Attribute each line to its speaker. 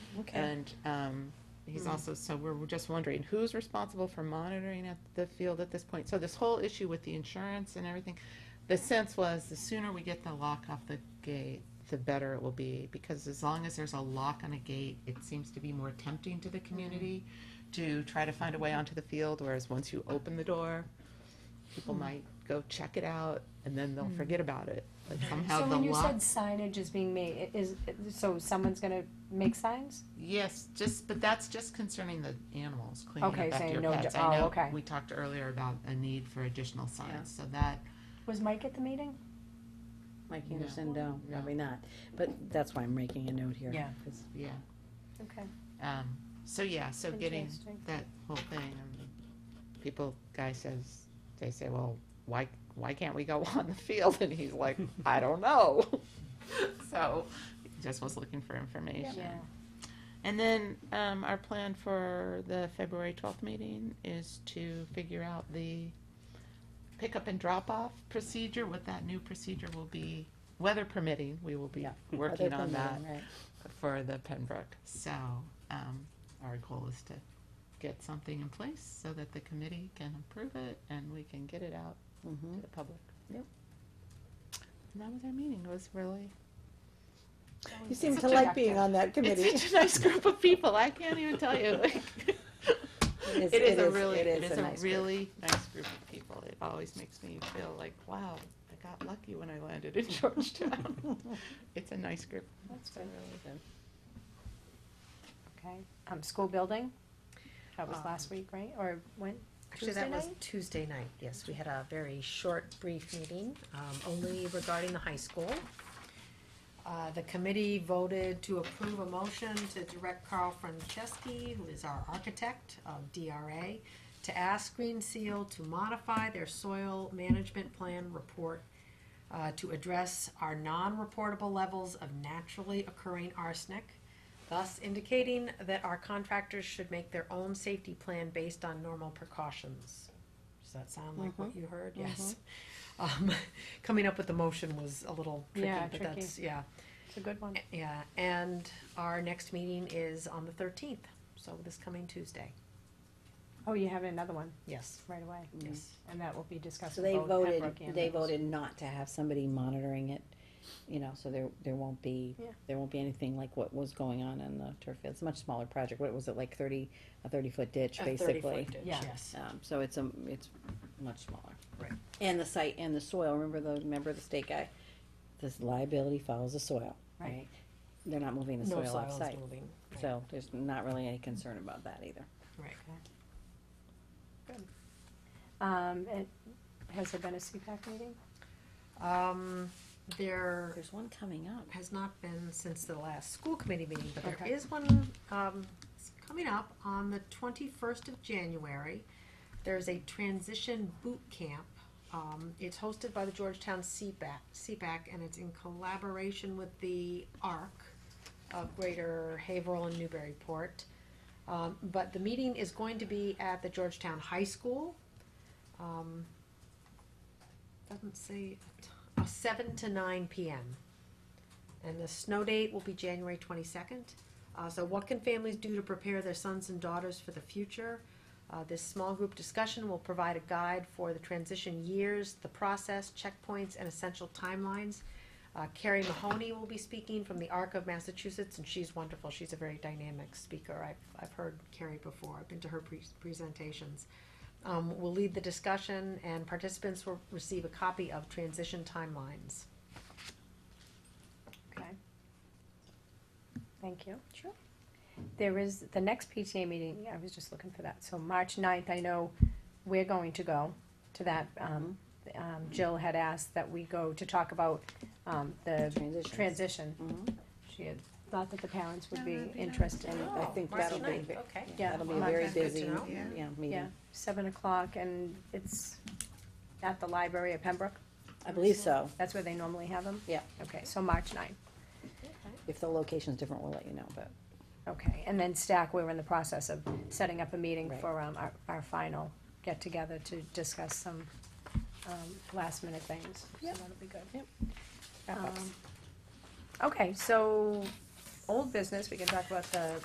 Speaker 1: Okay.
Speaker 2: And um, he's
Speaker 1: Hmm.
Speaker 2: also, so we're we're just wondering, who's responsible for monitoring at the field at this point? So this whole issue with the insurance and everything, the sense was, the sooner we get the lock off the gate, the better it will be, because as long as there's a lock on a gate, it seems to be more tempting to the
Speaker 3: Mm-hmm.
Speaker 2: community to try to find a way onto the field, whereas once you open the door, people
Speaker 3: Hmm.
Speaker 2: might go check it out, and then they'll forget about it. But somehow
Speaker 3: So
Speaker 2: the
Speaker 3: when you
Speaker 2: lock
Speaker 3: said signage is being made, i- is, so someone's gonna make signs?
Speaker 2: Yes, just, but that's just concerning the animals, cleaning up
Speaker 3: Okay,
Speaker 2: after
Speaker 3: saying
Speaker 2: your
Speaker 3: no
Speaker 2: pets.
Speaker 3: do-
Speaker 2: I
Speaker 3: oh,
Speaker 2: know
Speaker 3: okay.
Speaker 2: We talked earlier about a need for additional signs, so that,
Speaker 3: Was Mike at the meeting?
Speaker 1: Mike
Speaker 2: No.
Speaker 1: Anderson, no,
Speaker 2: No.
Speaker 1: probably not. But that's why I'm making a note here.
Speaker 3: Yeah.
Speaker 1: 'cause-
Speaker 2: yeah.
Speaker 3: Okay,
Speaker 2: Um, so yeah, so getting
Speaker 3: Interesting.
Speaker 2: that whole thing, I mean, people, guy says, they say, well, why, why can't we go on the field? And he's like, I don't know. So, he just was looking for information.
Speaker 3: yeah.
Speaker 2: And then, um, our plan for the February twelfth meeting is to figure out the pickup and drop-off procedure, what that new procedure will be, weather permitting, we will be
Speaker 1: Yeah.
Speaker 2: working
Speaker 1: Other
Speaker 2: on
Speaker 1: than
Speaker 2: that
Speaker 1: right.
Speaker 2: for the Pembroke. So, um, our goal is to get something in place so that the committee can approve it and we can get it out
Speaker 1: Mhm.
Speaker 2: to the public.
Speaker 1: Yep.
Speaker 2: And that was our meeting, it was really,
Speaker 1: You seem to
Speaker 2: such a
Speaker 1: like being on that committee.
Speaker 2: it's such a nice group of people, I can't even tell you, like, It is
Speaker 1: is- it
Speaker 2: a
Speaker 1: is-
Speaker 2: really,
Speaker 1: it
Speaker 2: it
Speaker 1: is
Speaker 2: is
Speaker 1: a
Speaker 2: a
Speaker 1: nice group.
Speaker 2: really nice group of people. It always makes me feel like, wow, I got lucky when I landed in Georgetown. It's a nice group.
Speaker 3: That's
Speaker 2: It's a
Speaker 3: good,
Speaker 2: really good.
Speaker 3: okay. Um, school building, that was
Speaker 4: Um,
Speaker 3: last week, right, or when?
Speaker 4: Actually, that
Speaker 3: Tuesday
Speaker 4: was
Speaker 3: night?
Speaker 4: Tuesday night, yes, we had a very short, brief meeting, um, only regarding the high school. Uh, the committee voted to approve a motion to direct Carl Franceschi, who is our architect of DRA, to ask Green Seal to modify their soil management plan report uh, to address our non-reportable levels of naturally occurring arsenic, thus indicating that our contractors should make their own safety plan based on normal precautions. Does that sound like what
Speaker 3: Mm-hmm.
Speaker 4: you heard? Yes. Um, coming up with the motion was a little tricky,
Speaker 3: Yeah,
Speaker 4: but
Speaker 3: tricky.
Speaker 4: that's, yeah.
Speaker 3: It's a good one.
Speaker 4: Yeah, and our next meeting is on the thirteenth, so this coming Tuesday,
Speaker 3: Oh, you have another one
Speaker 4: yes,
Speaker 3: right away,
Speaker 4: yes.
Speaker 3: and that will be discussed.
Speaker 1: So
Speaker 3: with
Speaker 1: they
Speaker 3: both
Speaker 1: voted,
Speaker 3: Pembroke and
Speaker 1: they
Speaker 3: Mills.
Speaker 1: voted not to have somebody monitoring it, you know, so there, there won't be,
Speaker 3: Yeah.
Speaker 1: there won't be anything like what was going on in the turf field. It's a much smaller project. What was it, like thirty, a thirty-foot ditch,
Speaker 4: A 30
Speaker 1: basically?
Speaker 4: foot ditch,
Speaker 3: Yeah.
Speaker 4: Yes,
Speaker 1: Um, so it's a, it's much smaller.
Speaker 4: Right.
Speaker 1: And the site and the soil, remember the, remember the state guy? This liability follows the soil,
Speaker 3: Right.
Speaker 1: right? They're not moving the
Speaker 4: no
Speaker 1: soil off
Speaker 4: silence
Speaker 1: site,
Speaker 4: moving, right,
Speaker 1: so there's not really any concern about that either.
Speaker 4: right.
Speaker 3: Um, and has there been a CPAC meeting?
Speaker 4: Um, there
Speaker 1: There's one coming up.
Speaker 4: has not been since the last school committee meeting, but there
Speaker 3: Okay.
Speaker 4: is one, um, it's coming up on the twenty-first of January. There's a transition boot camp. Um, it's hosted by the Georgetown CPAC, CPAC, and it's in collaboration with the ARC of Greater Haverhill and Newburyport. Um, but the meeting is going to be at the Georgetown High School. Um, doesn't say, a t- uh, seven to nine PM. And the snow date will be January twenty-second. Uh, so what can families do to prepare their sons and daughters for the future? Uh, this small group discussion will provide a guide for the transition years, the process, checkpoints, and essential timelines. Uh, Carrie Mahoney will be speaking from the ARC of Massachusetts, and she's wonderful. She's a very dynamic speaker. I've, I've heard Carrie before. I've been to her pre- presentations. Um, will lead the discussion, and participants will receive a copy of Transition Timelines.
Speaker 3: Okay. Thank you. Sure. There is, the next PTA meeting, I was just looking for that, so March ninth, I know we're going to go to that. Um, um, Jill had asked that we go to talk about, um, the
Speaker 1: Transitions.
Speaker 3: transition.
Speaker 1: Mhm.
Speaker 3: She had thought that the parents would
Speaker 2: No,
Speaker 3: be
Speaker 1: Uh-huh.
Speaker 2: that'd be nice.
Speaker 3: interested.
Speaker 1: And I think
Speaker 4: Oh, March
Speaker 1: that'll be,
Speaker 4: 9th,
Speaker 1: ve-
Speaker 4: okay.
Speaker 3: Yeah,
Speaker 1: Oh, that'll be
Speaker 3: March
Speaker 1: very
Speaker 3: is
Speaker 4: good to
Speaker 1: busy,
Speaker 4: know.
Speaker 2: Yeah.
Speaker 1: yeah,
Speaker 3: Yeah,
Speaker 1: meeting.
Speaker 3: seven o'clock, and it's at the library at Pembroke,
Speaker 1: I believe so.
Speaker 3: that's where they normally have them?
Speaker 1: Yeah.
Speaker 3: Okay, so March ninth.
Speaker 1: If the location's different, we'll let you know, but
Speaker 3: Okay, and then Stack, we were in the process of setting up a meeting
Speaker 1: Right.
Speaker 3: for um, our, our final get-together to discuss some um, last-minute things. So
Speaker 1: Yep.
Speaker 3: that'll be good.
Speaker 1: Yep.
Speaker 3: Um, Okay, so, old business, we can talk about the